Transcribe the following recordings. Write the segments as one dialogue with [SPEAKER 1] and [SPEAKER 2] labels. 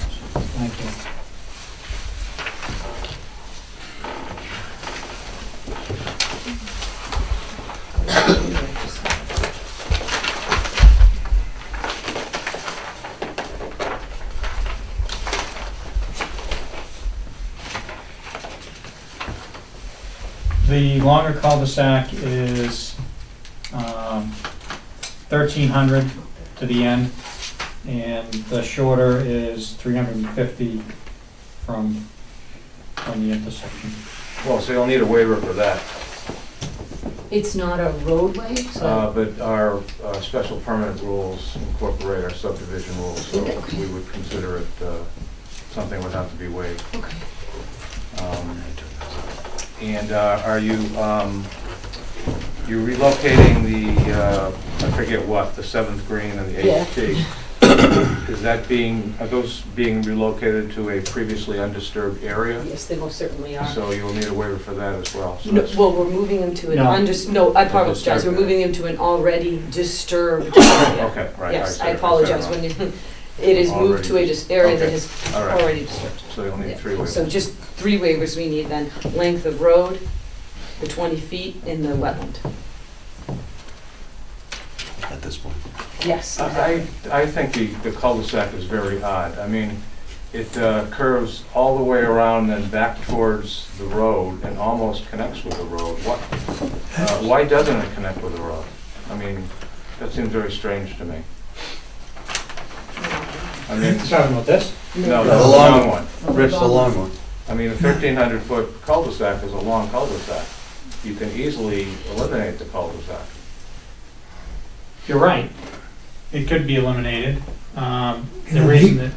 [SPEAKER 1] Thank you.
[SPEAKER 2] The longer cul-de-sac is um, 1,300 to the end, and the shorter is 350 from, from the intersection.
[SPEAKER 3] Well, so you'll need a waiver for that,
[SPEAKER 4] It's not a roadway,
[SPEAKER 3] Uh,
[SPEAKER 4] so
[SPEAKER 3] but our uh, special permanent rules incorporate our subdivision rules, so we would consider it uh, something would have to be waived.
[SPEAKER 4] okay.
[SPEAKER 3] Um, And uh, are you, um, you relocating the, uh, I forget what, the seventh green and the eighth tee? Is that being, are those being relocated to a previously undisturbed area?
[SPEAKER 4] Yes, they most certainly are.
[SPEAKER 3] So you'll need a waiver for that as well. So
[SPEAKER 4] No,
[SPEAKER 3] that's-
[SPEAKER 4] Well, we're moving them to an
[SPEAKER 2] No.
[SPEAKER 4] under, no, I apologize, we're
[SPEAKER 3] disturbed.
[SPEAKER 4] moving them to an already disturbed area.
[SPEAKER 3] Okay, right. said
[SPEAKER 4] Yes, I
[SPEAKER 3] it, said it
[SPEAKER 4] apologize
[SPEAKER 3] wrong.
[SPEAKER 4] when you, it is moved to a
[SPEAKER 3] Already.
[SPEAKER 4] dis- area that
[SPEAKER 3] Okay.
[SPEAKER 4] is
[SPEAKER 3] All right.
[SPEAKER 4] already disturbed.
[SPEAKER 3] So you'll need
[SPEAKER 4] Yeah.
[SPEAKER 3] three waivers.
[SPEAKER 4] So just three waivers we need then, length of road, the 20 feet in the wetland.
[SPEAKER 5] at this point.
[SPEAKER 4] Yes.
[SPEAKER 3] I, I I think the the cul-de-sac is very odd. I mean, it uh, curves all the way around and back towards the road and almost connects with the road. What, uh, why doesn't it connect with the road? I mean, that seems very strange to me. I mean,
[SPEAKER 2] Talking about this?
[SPEAKER 3] no,
[SPEAKER 5] The
[SPEAKER 3] that's a
[SPEAKER 5] long
[SPEAKER 3] long one.
[SPEAKER 5] Rich, the long one.
[SPEAKER 3] I mean, a 1,300-foot cul-de-sac is a long cul-de-sac. You can easily eliminate the cul-de-sac.
[SPEAKER 2] You're right. It could be eliminated. Um, The reason that,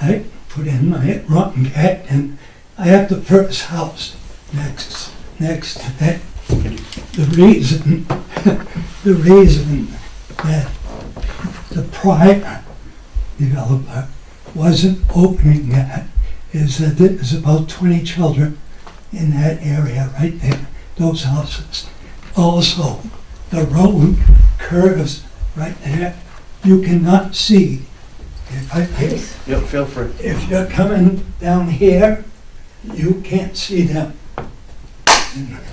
[SPEAKER 6] I put in my rotten cat and I have the first house next, next to that. The reason, the reason that the prior developer wasn't opening that is that there's about twenty children in that area right there, those houses. Also, the road curves right there. You cannot see. If I, if
[SPEAKER 5] Yep, feel free.
[SPEAKER 6] if you're coming down here, you can't see them.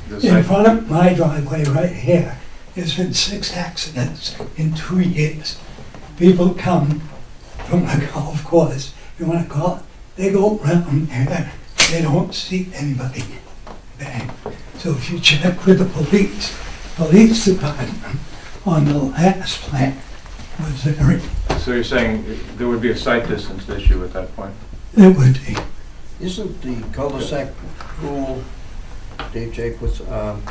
[SPEAKER 3] The
[SPEAKER 6] In
[SPEAKER 3] site-
[SPEAKER 6] front of my driveway right here, there's been six accidents in two years. People come from the golf course, you wanna call it, they go round there, they don't see anybody. there. So if you check with the police, police department on the last plant was very,
[SPEAKER 3] So you're saying there would be a site distance issue at that point?
[SPEAKER 6] it would be
[SPEAKER 5] Isn't the cul-de-sac rule, Dave Jakewitz, um,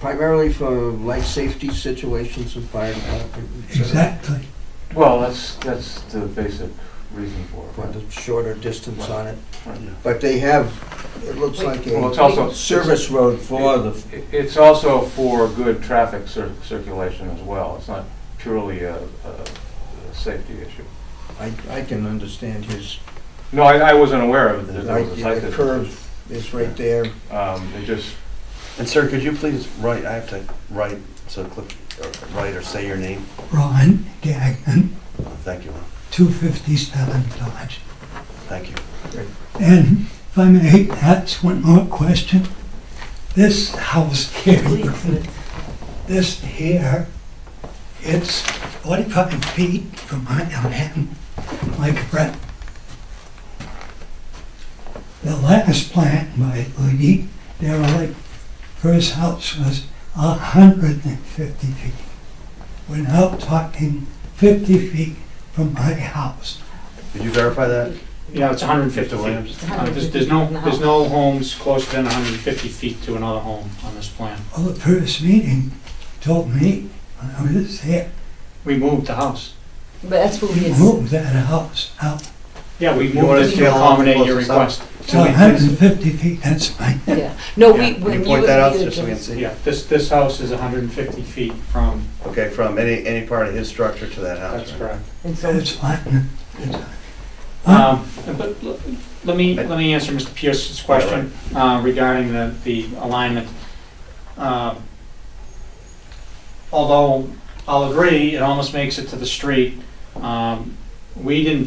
[SPEAKER 5] primarily for life safety situations and fire department? et cetera?
[SPEAKER 6] exactly.
[SPEAKER 3] Well, that's, that's the basic reason for
[SPEAKER 5] For
[SPEAKER 3] it.
[SPEAKER 5] the shorter distance on it.
[SPEAKER 3] Right.
[SPEAKER 5] But they have, it looks like
[SPEAKER 3] Well, it's
[SPEAKER 5] a
[SPEAKER 3] also.
[SPEAKER 5] service road for the,
[SPEAKER 3] It- It's also for good traffic cir- circulation as well. It's not purely a, a a safety issue.
[SPEAKER 5] I, I can understand his,
[SPEAKER 3] No, I, I wasn't aware of that there was a site
[SPEAKER 5] the
[SPEAKER 3] distance.
[SPEAKER 5] curve is right there.
[SPEAKER 3] Um, it just,
[SPEAKER 7] And sir, could you please write, I have to write, so click, or write or say your name.
[SPEAKER 6] Ron Gagnon,
[SPEAKER 7] Uh, Thank you, Ron.
[SPEAKER 6] 257 Dodge.
[SPEAKER 7] thank you.
[SPEAKER 6] And if I may ask one more question, this house here,
[SPEAKER 4] Please.
[SPEAKER 6] this here, it's 45 feet from my land, my correct. The last plant by Lee, they were like, first house was 150 feet. We're now talking 50 feet from my house.
[SPEAKER 7] Could you verify that?
[SPEAKER 2] yeah, it's 150
[SPEAKER 7] Mr.
[SPEAKER 2] feet.
[SPEAKER 7] Williams?
[SPEAKER 2] Uh, There's there's no, there's no homes closer than 150 feet to another home on this plan.
[SPEAKER 6] Well, the first meeting told me when I was there,
[SPEAKER 2] We moved the house.
[SPEAKER 4] But that's what we
[SPEAKER 6] you
[SPEAKER 4] had,
[SPEAKER 6] moved that house out
[SPEAKER 2] Yeah, we
[SPEAKER 7] wanna
[SPEAKER 2] moved it
[SPEAKER 7] see
[SPEAKER 2] to
[SPEAKER 7] how long
[SPEAKER 2] accommodate
[SPEAKER 7] close
[SPEAKER 2] your
[SPEAKER 7] this up?
[SPEAKER 2] request.
[SPEAKER 6] to 150 feet, that's my,
[SPEAKER 4] yeah. No,
[SPEAKER 2] Yeah,
[SPEAKER 4] we,
[SPEAKER 2] can
[SPEAKER 7] Can
[SPEAKER 4] when
[SPEAKER 7] you
[SPEAKER 4] you.
[SPEAKER 7] point that out
[SPEAKER 4] you had
[SPEAKER 7] just so we can
[SPEAKER 4] just-
[SPEAKER 7] see?
[SPEAKER 2] Yeah, this, this house is 150 feet from,
[SPEAKER 7] Okay, from any, any part of his structure to that house,
[SPEAKER 2] that's
[SPEAKER 7] right?
[SPEAKER 2] correct.
[SPEAKER 4] And so
[SPEAKER 6] that's my.
[SPEAKER 2] Um, But l- let me, let me answer Mr. Pierce's question uh, regarding the, the alignment. Um, Although I'll agree, it almost makes it to the street, um, we didn't